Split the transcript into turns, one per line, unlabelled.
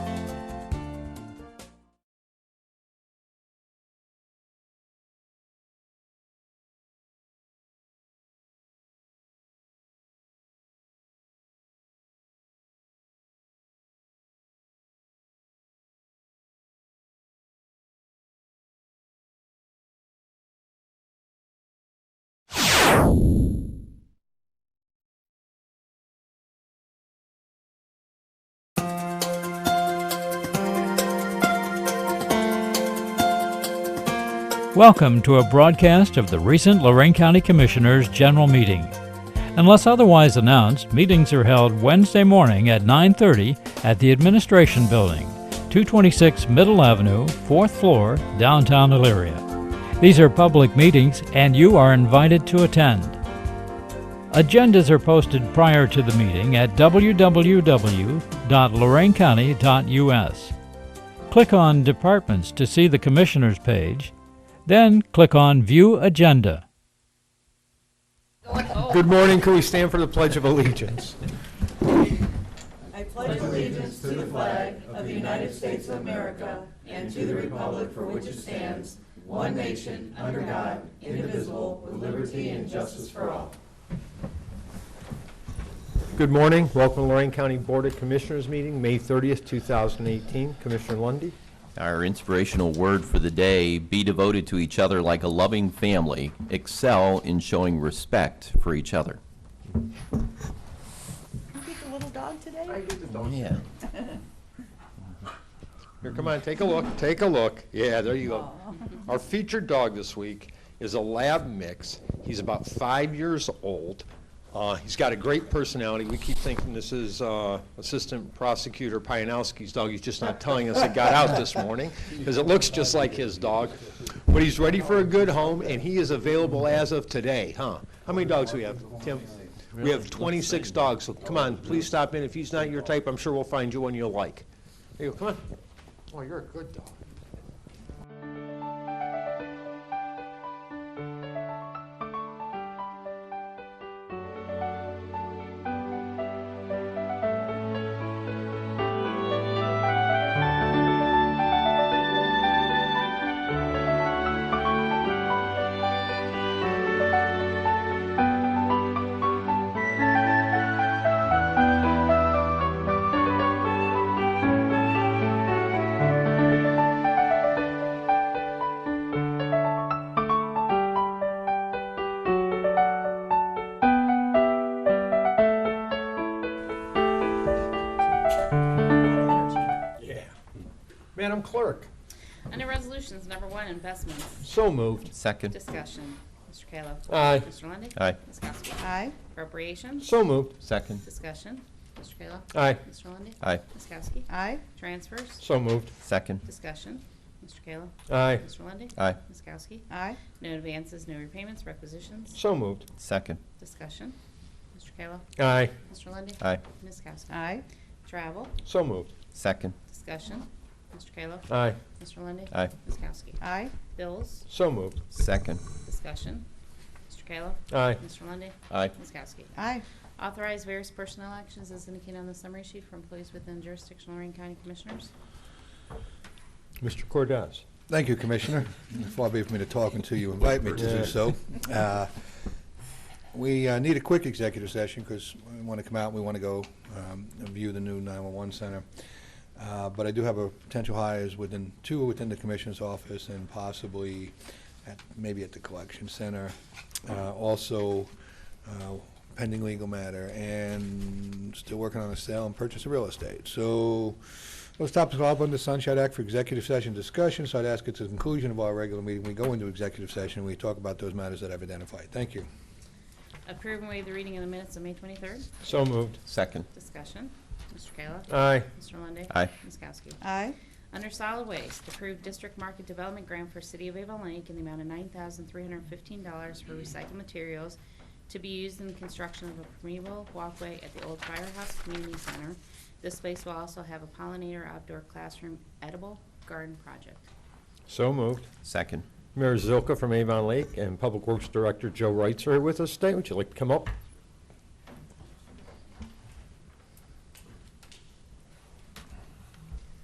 Welcome to a broadcast of the recent Lorraine County Commissioners' General Meeting. Unless otherwise announced, meetings are held Wednesday morning at 9:30 at the Administration Building, 226 Middle Avenue, 4th floor, downtown Elyria. These are public meetings and you are invited to attend. Agendas are posted prior to the meeting at www.loraincounty.us. Click on Departments to see the Commissioners page, then click on View Agenda.
Good morning, can we stand for the Pledge of Allegiance? Good morning, welcome to Lorraine County Board of Commissioners meeting, May 30th, 2018. Commissioner Lundy.
Our inspirational word for the day be devoted to each other like a loving family, excel in showing respect for each other.
Get the little dog today?
Yeah.
Here, come on, take a look, take a look. Yeah, there you go. Our featured dog this week is a lab mix. He's about five years old. Uh, He's got a great personality. We keep thinking this is uh, Assistant Prosecutor Pianowski's dog. He's just not telling us it got out this morning, because it looks just like his dog. But he's ready for a good home, and he is available as of today, huh? How many dogs do we have, Tim? We have 26 dogs, so come on, please stop in. If he's not your type, I'm sure we'll find you one you'll like. There you go, come on. Oh, you're a good dog. Madam Clerk.
Under Resolutions Number One, Investments,
So moved.
Second,
Discussion. Mr. Kayla.
Aye.
Mr. Lundy.
Aye.
Ms. Kowski.
Aye,
Appropriations,
So moved.
second,
Discussion. Mr. Kayla.
Aye.
Mr. Lundy.
aye,
Ms. Kowski.
aye,
Transfers,
So moved.
second,
Discussion. Mr. Kayla.
Aye.
Mr. Lundy.
aye,
Ms. Kowski.
aye,
No advances, no repayments, requisitions,
So moved.
second,
Discussion. Mr. Kayla.
Aye.
Mr. Lundy.
aye,
Ms. Kowski.
aye,
Travel,
So moved.
second,
Discussion. Mr. Kayla.
Aye.
Mr. Lundy.
Aye.
Ms. Kowski.
aye,
Bills,
So moved.
second,
Discussion. Mr. Kayla.
Aye.
Mr. Lundy.
aye,
Ms. Kowski.
aye,
Authorize various personnel actions as indicated on the summary sheet for employees within jurisdiction of Lorraine County Commissioners.
Mr. Cordez.
Thank you, Commissioner. Far be it from me to talking to you, invite me to
Yeah.
do so. Uh, We uh, need a quick executive session because we want to come out, we want to go um, and view the new 911 center. Uh, But I do have a potential hires within, two within the Commissioner's office and possibly at, maybe at the collection center. Uh, Also uh, pending legal matter and still working on a sale and purchase of real estate. So those topics are all under the Sunshine Act for executive session discussion, so I'd ask at the conclusion of our regular meeting, we go into executive session, we talk about those matters that I've identified. Thank you.
Approve and waive the reading of the minutes of May 23rd.
So moved.
second,
Discussion. Mr. Kayla.
Aye.
Mr. Lundey.
Aye.
Ms. Kowski.
aye,
Under solid waste, approve district market development grant for City of Avon Lake in the amount of $9,315 for recycled materials to be used in the construction of a permeable walkway at the old firehouse community center. This space will also have a pollinator outdoor classroom edible garden project.
So moved.
second.
Mayor Zilka from Avon Lake and Public Works Director Joe Wrights are here with us today. Would you like to come up?